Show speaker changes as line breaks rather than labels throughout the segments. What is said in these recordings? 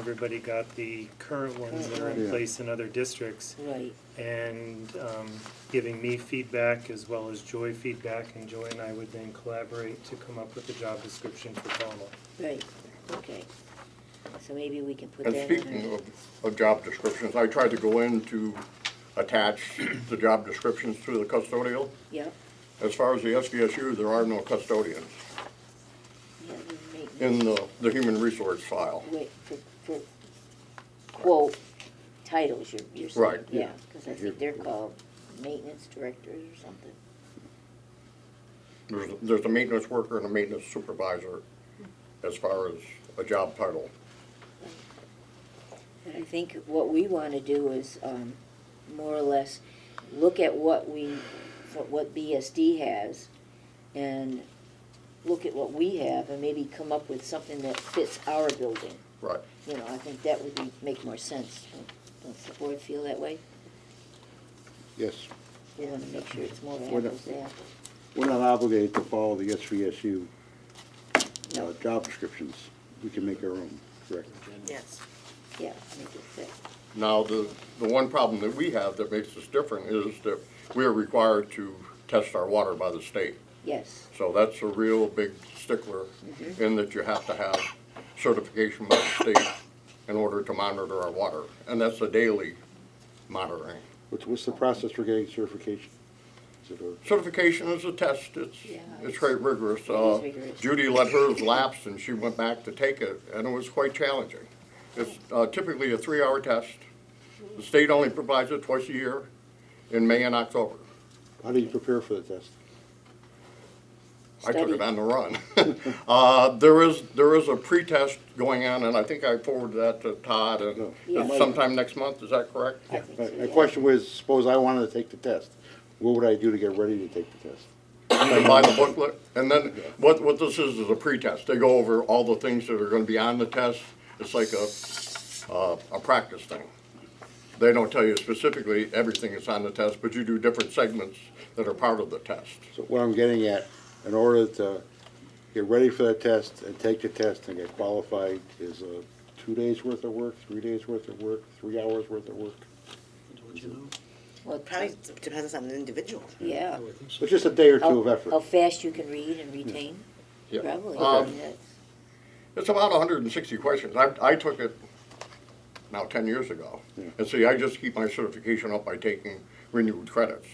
Everybody got the current ones that are in
Yeah.
place in other districts
Right,
and um, giving me feedback as well as Joy feedback. And Joy and I would then collaborate to come up with a job description for Pownell.
right, okay. So maybe we can put that
And
in.
speaking of, of job descriptions, I tried to go in to attach the job descriptions to the custodial.
Yep,
As far as the SVSU, there are no custodians
yeah, you make.
in the, the human resource file.
Wait, for, for quote titles, you're, you're saying,
Right.
yeah, because I think they're called maintenance directors or something.
There's, there's a maintenance worker and a maintenance supervisor as far as a job title.
But I think what we want to do is, um, more or less, look at what we, what BSD has, and look at what we have, and maybe come up with something that fits our building.
Right.
You know, I think that would be, make more sense. Don't- Don't the board feel that way?
Yes,
We want to make sure it's more
We're not-
apples to apples.
we're not obligated to follow the SVSU uh,
No,
job descriptions. We can make our own, correct?
Yes.
yeah, make it fit.
Now, the, the one problem that we have that makes us different is that we are required to test our water by the state.
Yes,
So that's a real big stickler
Mm-hmm.
in that you have to have certification by the state in order to monitor our water. And that's a daily monitoring.
What's, what's the process for getting certification? Is it a-
Certification is a test, it's,
Yeah,
it's
it's-
very rigorous.
is
Uh,
rigorous.
Judy let hers lapse and she went back to take it and it was quite challenging. It's uh, typically a three-hour test. The state only provides it twice a year in May and October.
How do you prepare for the test?
I took
Study.
it on the run. Uh, There is, there is a pretest going on, and I think I forwarded that to Todd, and
Yeah.
it's sometime next month, is that correct?
I think
My,
so,
my
yeah.
question was, suppose I wanted to take the test, what would I do to get ready to take the test?
They buy the booklet, and then what, what this is, is a pretest. They go over all the things that are gonna be on the test. It's like a, uh, a practice thing. They don't tell you specifically everything that's on the test, but you do different segments that are part of the test.
So what I'm getting at, in order to get ready for that test and take the test and get qualified is a two days' worth of work, three days' worth of work, three hours' worth of work?
Well,
Probably depends on the individual.
Yeah.
It's just a day or
How-
two of effort.
How fast you can read and retain,
Hmm. Yeah.
probably.
Um,
yes.
It's about hundred and sixty questions. I, I took it now ten years ago.
Yeah.
And see, I just keep my certification up by taking renewed credits.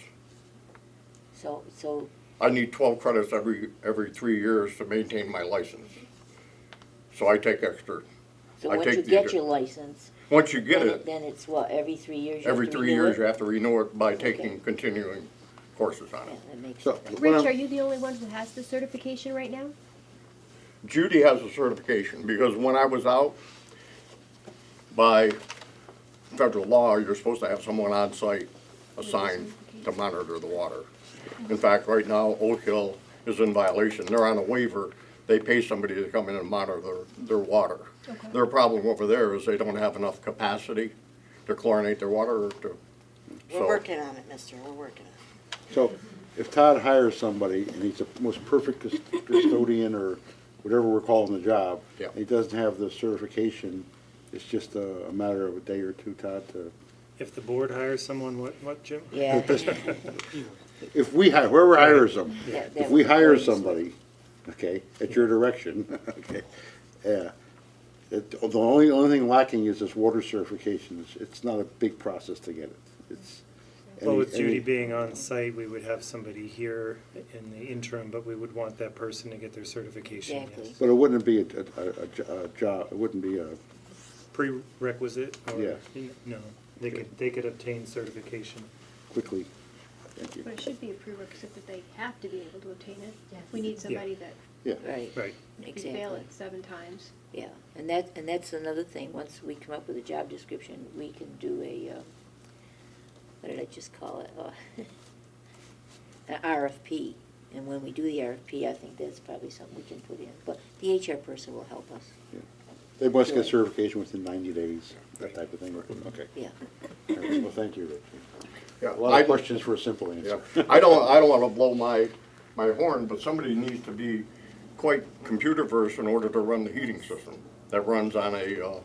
So, so,
I need twelve credits every, every three years to maintain my license. So I take extra.
so
I
once
take
you
the-
get your license,
Once you get
then it-
it,
then it's what, every three years you have
every
to
three
renew
years
it?
you have to renew it by taking
Okay.
continuing courses on
Yeah,
it.
that makes
So,
sense.
what
Rich,
I'm-
are you the only one who has the certification right now?
Judy has a certification because when I was out, by federal law, you're supposed to have someone on site assigned to monitor the water. In fact, right now, Oak Hill is in violation. They're on a waiver. They pay somebody to come in and monitor their, their water.
Okay.
Their problem over there is they don't have enough capacity to chlorinate their water or to,
We're
so,
working on it, mister, we're working on it.
So if Todd hires somebody and he's the most perfect cus- custodian or whatever we're calling the job,
Yeah.
and he doesn't have the certification, it's just a, a matter of a day or two, Todd, to,
If the board hires someone, what, what, Jim?
Yeah.
if we hire, whoever hires them,
that- that
if we
would
hire
always-
somebody, okay, at your direction, okay, yeah. It, the only, only thing lacking is this water certification. It's, it's not a big process to get it. It's.
Well,
any-
with Judy
any-
being on site, we would have somebody here in the interim, but we would want that person to get their certification,
Exactly.
yes.
But it wouldn't be a, a, a, jo- a job, it wouldn't be a,
Prerequisite or,
Yeah.
no, they could, they could obtain certification.
quickly, thank you.
But it should be a prerequisite that they have to be able to obtain it. We need somebody that
Yeah,
Right,
Right.
can fail
exactly,
it seven times.
yeah. And that, and that's another thing, once we come up with a job description, we can do a, um, what did I just call it? Uh, An RFP. And when we do the RFP, I think that's probably something we can put in. But the HR person will help us,
they must get
Yeah.
certification within ninety days, that type of thing, okay.
yeah.
All right, Well, thank you, Rich.
yeah.
A lot
I-
of questions for a simple answer.
Yeah, I don't, I don't wanna blow my, my horn, but somebody needs to be quite computer versed in order to run the heating system that runs on a, uh,